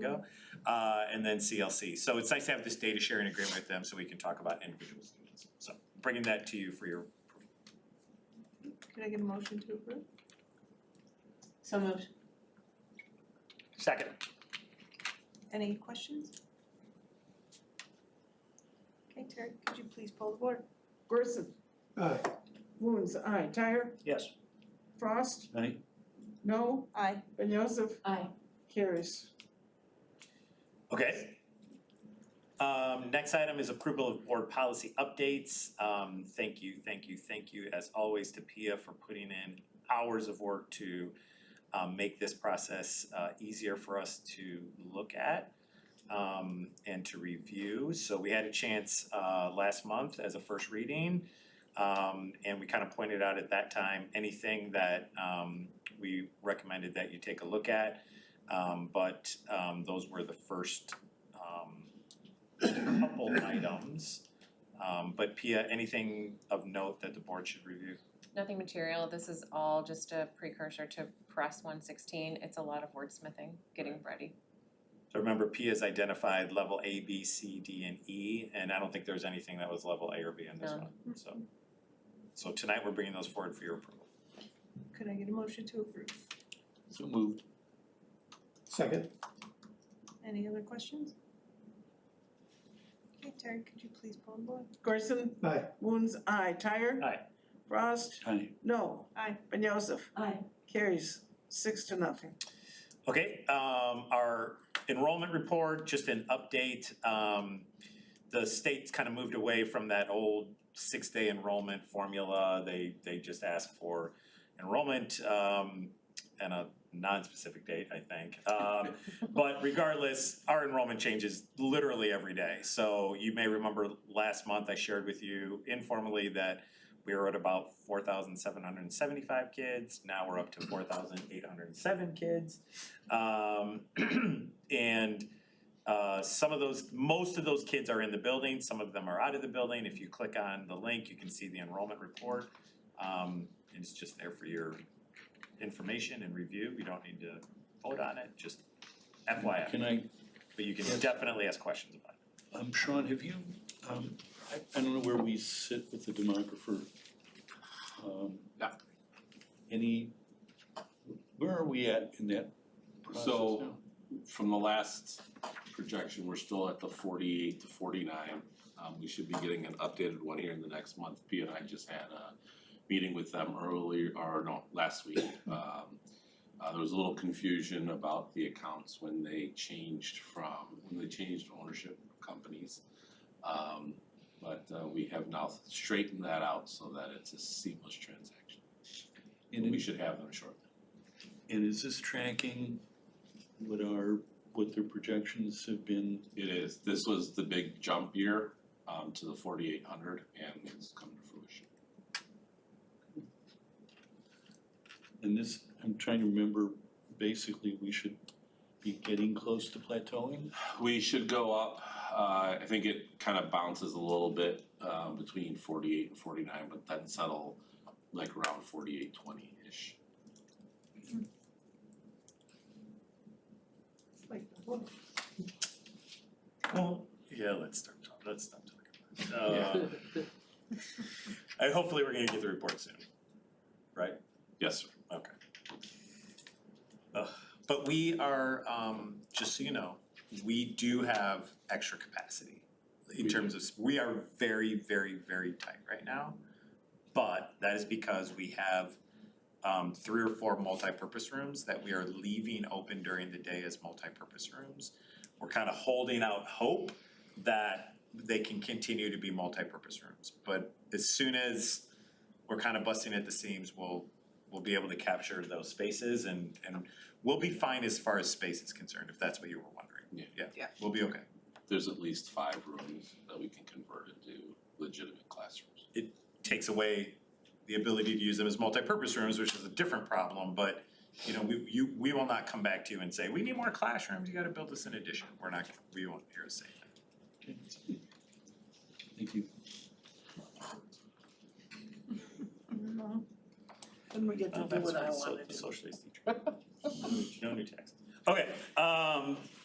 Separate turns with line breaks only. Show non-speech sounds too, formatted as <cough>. go. Uh, and then CLC. So it's nice to have this data sharing agreement with them so we can talk about individual students. So bringing that to you for your approval.
Can I get a motion to approve?
So moved.
Second.
Any questions? Okay, Terry, could you please poll the board?
Gerson,
Aye.
Moon's aye. Tyre,
Yes.
Frost,
Aye.
no,
Aye.
Ben Joseph
Aye.
carries.
Okay. Um, next item is approval of board policy updates. Um, thank you, thank you, thank you as always to Pia for putting in hours of work to um, make this process uh, easier for us to look at um, and to review. So we had a chance uh, last month as a first reading. Um, and we kind of pointed out at that time, anything that um, we recommended that you take a look at. Um but um those were the first um couple items. Um but Pia, anything of note that the board should review?
Nothing material, this is all just a precursor to press one sixteen, it's a lot of wordsmithing, getting ready.
So remember Pia's identified level A, B, C, D, and E, and I don't think there's anything that was level A or B in this
No.
one, so. So tonight we're bringing those forward for your approval.
Could I get a motion to approve?
So moved. Second.
Any other questions? Okay, Terry, could you please poll the board?
Gerson,
Aye.
Moon's aye. Tyre,
Aye.
Frost,
Aye.
no,
Aye.
Ben Joseph
Aye.
carries six to nothing.
Okay, um, our enrollment report, just an update, um, the state's kind of moved away from that old six-day enrollment formula, they, they just ask for enrollment, um, and a non-specific date, I think. Um, but regardless, our enrollment changes literally every day, so you may remember last month I shared with you informally that we were at about four thousand seven hundred and seventy-five kids, now we're up to four thousand eight hundred and seven kids. Um, <clears throat> and uh, some of those, most of those kids are in the building, some of them are out of the building. If you click on the link, you can see the enrollment report. Um, and it's just there for your information and review. You don't need to vote on it, just FYI.
Can I,
But you can definitely ask questions about it.
um, Sean, have you, um, I, I don't know where we sit with the demographer. Um,
Yeah.
Any, where are we at in that process
So-
now?
From the last projection, we're still at the forty-eight to forty-nine. Um, we should be getting an updated one here in the next month. P and I just had a meeting with them earlier, or no, last week. Um, uh, there was a little confusion about the accounts when they changed from, when they changed ownership companies. Um, but, uh, we have now straightened that out so that it's a seamless transaction. And we
And,
should have them shortly.
and is this tracking what our, what their projections have been?
It is, this was the big jump year um to the forty-eight hundred and it's come to fruition.
And this, I'm trying to remember, basically, we should be getting close to plateauing?
We should go up, uh I think it kind of bounces a little bit um between forty-eight and forty-nine, but then settle like around forty-eight twenty-ish.
It's like the book.
Well, yeah, let's start, talk- let's stop talking about it. Uh, and hopefully we're gonna get the report soon.
Yes, sir.
Okay. Ugh, But we are, um, just so you know, we do have extra capacity in
We
terms of, we are very, very, very tight right now. But that is because we have um three or four multipurpose rooms that we are leaving open during the day as multipurpose rooms. We're kind of holding out hope that they can continue to be multipurpose rooms. But as soon as we're kind of busting at the seams, we'll we'll be able to capture those spaces and and we'll be fine as far as space is concerned, if that's what you were wondering.
Yeah.
Yeah,
Yeah.
we'll be okay.
There's at least five rooms that we can convert into legitimate classrooms.
takes away the ability to use them as multipurpose rooms, which is a different problem, but you know, we you we will not come back to you and say, we need more classrooms, you gotta build this in addition, we're not, we won't hear us say that.
Okay. Thank you.
No. Then we get to do what I wanna do.
<laughs> socialist teacher. No new text. Okay, um